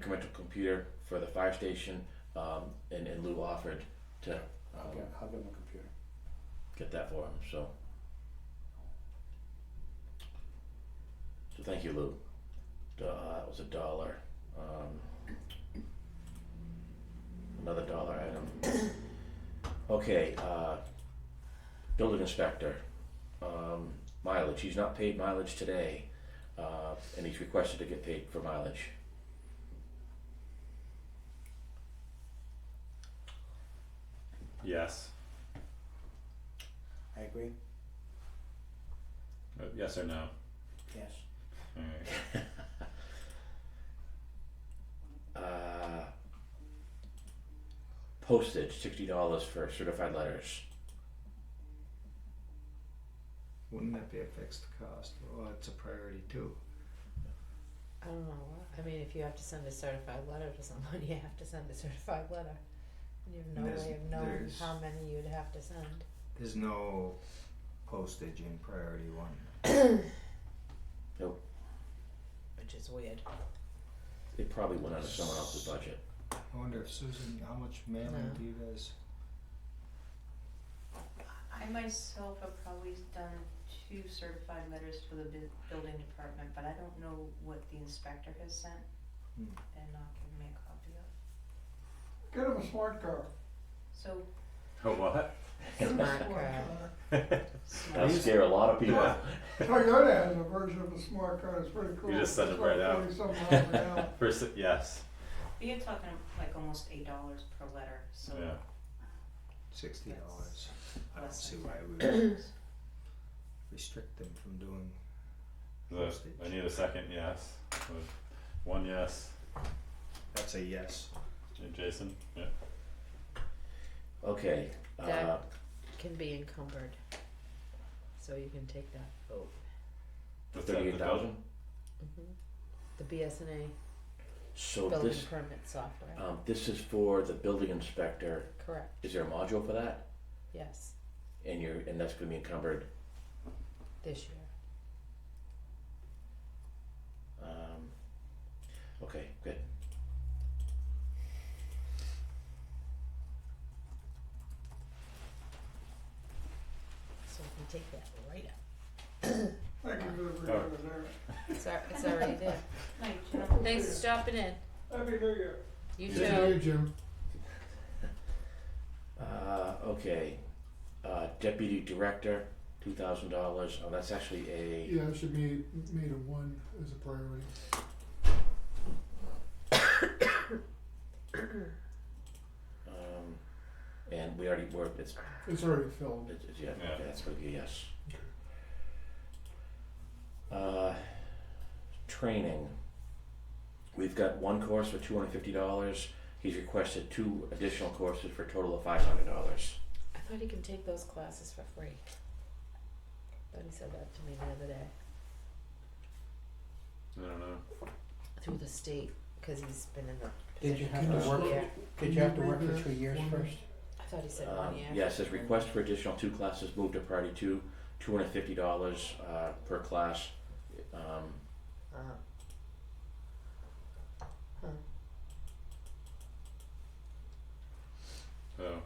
commercial computer for the fire station, um, and, and Lou offered to, I'll um, get, I'll get my computer. get that for him, so. So thank you, Lou. Do- Uh, it was a dollar, um. Another dollar item. Okay, uh, building inspector, um, mileage, he's not paid mileage today, uh, and he's requested to get paid for mileage. Yes. I agree, Uh, yes or no? yes. Alright. uh, postage, sixty dollars for certified letters. Wouldn't that be a fixed cost? Well, it's a priority too. I don't know, why- I mean, if you have to send a certified letter to someone, you have to send a certified letter. And you have no There's- way of knowing there's- how many you'd have to send. There's no postage in priority one. Which is weird. It probably went out of someone else's budget. I wonder if Susan, how much mailing No. do you guys? I myself have probably done two certified letters for the bu- building department, but I don't know what the inspector has sent Hmm. and not given me a copy of. Get him a smart car. So, Oh, what? Smart girl. That'll scare a lot of people. Toyota has a version of a smart car, it's pretty cool. just send it right out. It's like 40 some miles an hour. First, yes. but you're talking like almost eight dollars per letter, so. Yeah. Sixty dollars. I don't Less see than why we would Second, restrict them from doing The, postage. I need a second yes. With One yes. That's a yes. And Jason? Yeah. Okay. Uh, That- Can be encumbered. So you can take that. What's that, the thirty-eight thousand. Mm-hmm. The BSNA So Oh, building this, permit software, um, this is for the building inspector. Oh. correct, Is there a module for that? yes, And you're, and that's gonna be encumbered. this year. Um, okay, good. So we can take that right up. Thank you for the Oh. review there. It's, al- it's already there. night, gentlemen. Thanks for stopping in. Happy New Year. You Yeah. too. Uh, okay. Uh, deputy director, two thousand dollars. Oh, that's actually a. Yeah, it should be made a one as a priority. Um, and we already were. It's It's already filled. It's, it's, yeah, Yeah. okay, that's gonna be a yes. Uh, training. We've got one course for two hundred fifty dollars. He's requested two additional courses for a total of five hundred dollars. I thought he can take those classes for free. Thought he said that to me the other day. I don't know. Through the state, because he's been in the Did you position have for to a work- year. Did you have to work for three years first? I thought he said Um, one year. Um, Yes, his request for additional two classes moved to priority two, two hundred fifty dollars uh, per class. Um, Uh-huh. Oh.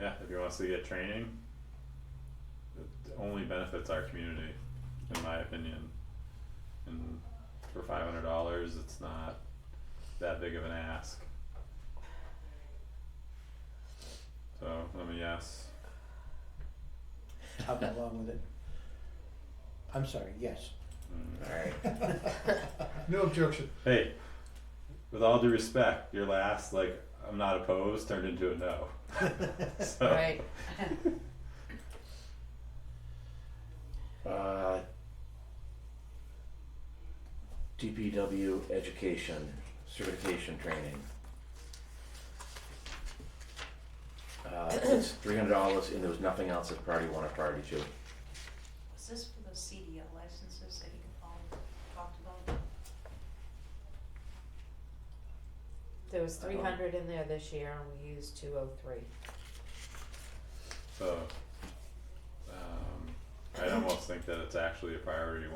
Yeah, if you want us to get training, it only benefits our community, in my opinion. And for five hundred dollars, it's not that big of an ask. So, let me yes. I'll go along with it. I'm sorry, yes. Mm. all right. No objection. Hey, with all due respect, your last, like, I'm not opposed, turned into a no. So. Right, Uh, DPW education certification training. Uh, it's three hundred dollars, and there was nothing else as priority one or priority two. Was this for those CDL licenses that you all talked about? there was I don't- three hundred in there this year and we used two oh three. So, um, I'd almost think that it's actually a priority one.